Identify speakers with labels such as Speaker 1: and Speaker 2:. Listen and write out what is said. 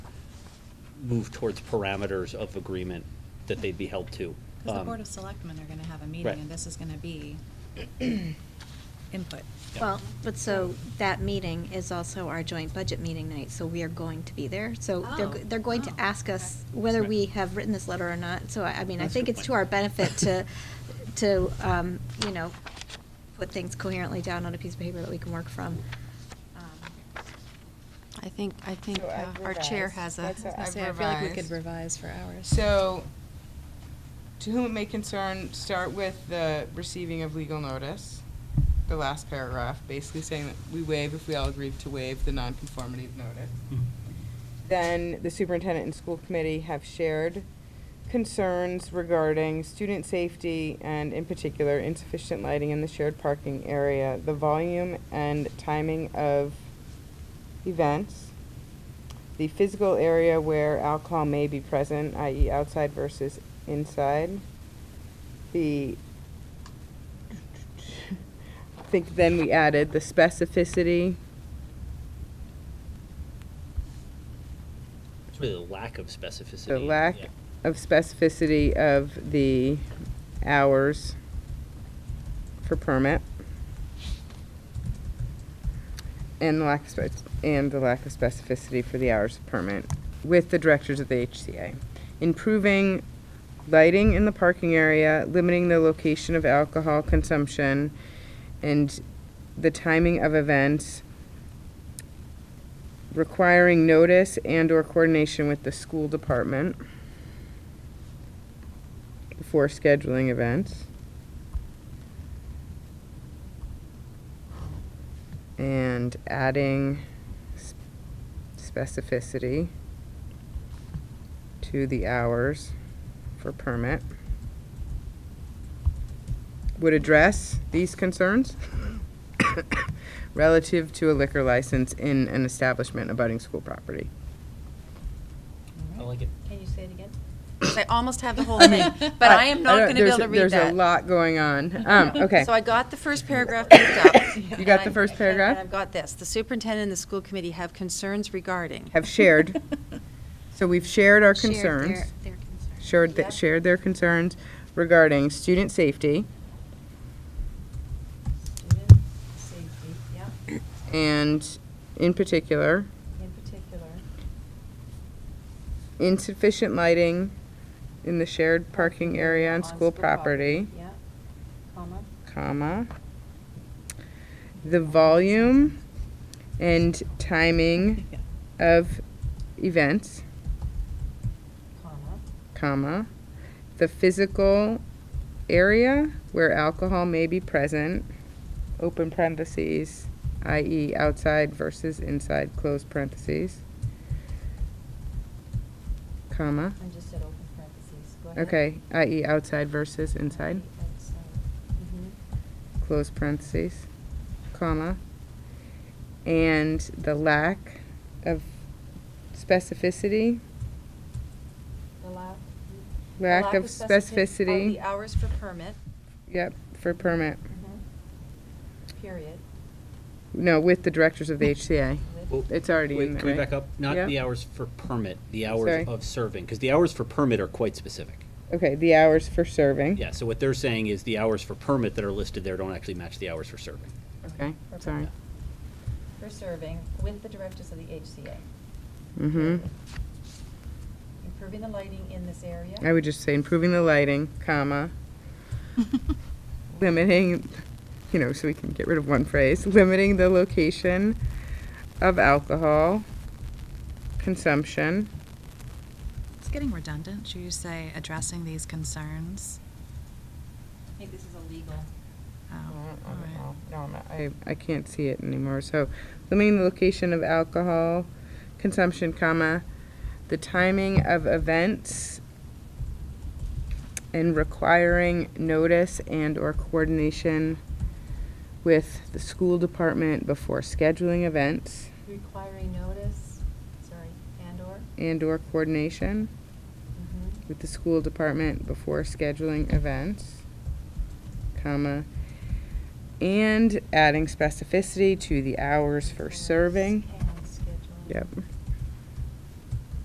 Speaker 1: move towards parameters of agreement that they'd be held to.
Speaker 2: Because the
Speaker 1: Um,
Speaker 2: Board of Selectmen are gonna have a
Speaker 1: right.
Speaker 2: meeting, and this is gonna be input.
Speaker 1: Yeah.
Speaker 3: Well, but so that meeting is also our joint budget meeting night, so we are going to be there. So they're,
Speaker 2: Oh.
Speaker 3: they're going to
Speaker 2: Oh,
Speaker 3: ask us
Speaker 2: okay.
Speaker 3: whether
Speaker 1: Right.
Speaker 3: we have written this letter or not. So I, I mean, I
Speaker 1: That's a
Speaker 3: think
Speaker 1: good
Speaker 3: it's
Speaker 1: point.
Speaker 3: to our benefit to, to, um, you know, put things coherently down on a piece of paper that we can work from. Um,
Speaker 4: I think, I think
Speaker 5: So
Speaker 4: uh,
Speaker 5: I've
Speaker 4: our chair
Speaker 5: revised.
Speaker 4: has a.
Speaker 5: That's what
Speaker 4: has
Speaker 5: I've
Speaker 4: a-
Speaker 6: I feel like we could
Speaker 5: revised.
Speaker 6: revise for hours.
Speaker 5: So, to whom it may concern, start with the receiving of legal notice, the last paragraph, basically saying that we waive if we all agree to waive the nonconformity of notice. Then the superintendent and school committee have shared concerns regarding student safety and in particular insufficient lighting in the shared parking area, the volume and timing of events, the physical area where alcohol may be present, i.e. outside versus inside, the, I think then we added the specificity.
Speaker 1: It's really the lack of specificity.
Speaker 5: The lack
Speaker 1: yeah.
Speaker 5: of specificity of the hours for permit. And the lack of spec, and the lack of specificity for the hours of permit with the directors of the HCA. Improving lighting in the parking area, limiting the location of alcohol consumption, and the timing of events, requiring notice and/or coordination with the school department before scheduling events. And adding s- specificity to the hours for permit. Would address these concerns relative to a liquor license in an establishment abutting school property.
Speaker 1: I like it.
Speaker 2: Can you say it again?
Speaker 4: 'cause I almost have the whole thing, but I am not
Speaker 5: don't-
Speaker 4: going to be
Speaker 5: there's-
Speaker 4: able to read
Speaker 5: There's a
Speaker 4: that.
Speaker 5: lot going on. Um, okay.
Speaker 4: So I got the first paragraph picked up.
Speaker 5: You
Speaker 4: and
Speaker 5: got the
Speaker 4: I-
Speaker 5: first
Speaker 4: and
Speaker 5: paragraph?
Speaker 4: I've got this. The superintendent and the school committee have concerns regarding.
Speaker 5: Have shared. So we've shared our
Speaker 3: shared their-
Speaker 5: concerns.
Speaker 3: their concerns.
Speaker 5: shared, th-
Speaker 4: Yep.
Speaker 5: shared their concerns regarding student safety
Speaker 2: Student safety, yeah,
Speaker 5: and, in particular,
Speaker 2: in particular.
Speaker 5: insufficient lighting in the shared parking area on school property,
Speaker 2: Yeah, comma.
Speaker 5: comma, the volume and timing of events,
Speaker 2: Comma.
Speaker 5: comma, the physical area where alcohol may be present, open parentheses, i.e. outside versus inside, close parentheses, comma,
Speaker 2: I just said open parentheses. Go ahead.
Speaker 5: okay, i.e. outside versus inside,
Speaker 2: Outside. Mhm.
Speaker 5: close parentheses, comma, and the lack of specificity,
Speaker 4: The lack- the
Speaker 5: lack of oh,
Speaker 4: Of the
Speaker 5: specificity,
Speaker 4: hours for permit,
Speaker 5: yep, for permit,
Speaker 2: mm-hmm,
Speaker 4: period.
Speaker 5: no, with the directors of the HCA.
Speaker 1: Well,
Speaker 5: It's already
Speaker 1: wait,
Speaker 5: in there.
Speaker 1: Can we
Speaker 5: right?
Speaker 1: back up?
Speaker 5: Yeah.
Speaker 1: Not the hours for permit, the
Speaker 5: Sorry.
Speaker 1: hours of serving, because the hours for permit are quite specific.
Speaker 5: Okay, the hours for serving.
Speaker 1: Yeah, so what they're saying is the hours for permit that are listed there don't actually match the hours for serving.
Speaker 5: Okay, sorry.
Speaker 2: For serving with the directors of the HCA.
Speaker 5: Mm-hmm.
Speaker 2: Improving the lighting in this area.
Speaker 5: I would just say improving the lighting, comma, limiting, you know, so we can get rid of one phrase, limiting the location of alcohol consumption.
Speaker 2: It's getting redundant. Should you say addressing these concerns? um, I think this is illegal.
Speaker 5: No, I'm not. I, I can't see it anymore, so limiting the location of alcohol consumption, comma, the timing of events and requiring notice and/or coordination with the school department before scheduling events
Speaker 2: Requiring notice, sorry, and/or?
Speaker 5: and/or coordination
Speaker 2: Mhm.
Speaker 5: with the school department before scheduling events, comma, and adding specificity to the hours for serving.
Speaker 2: And schedule.
Speaker 5: Yep.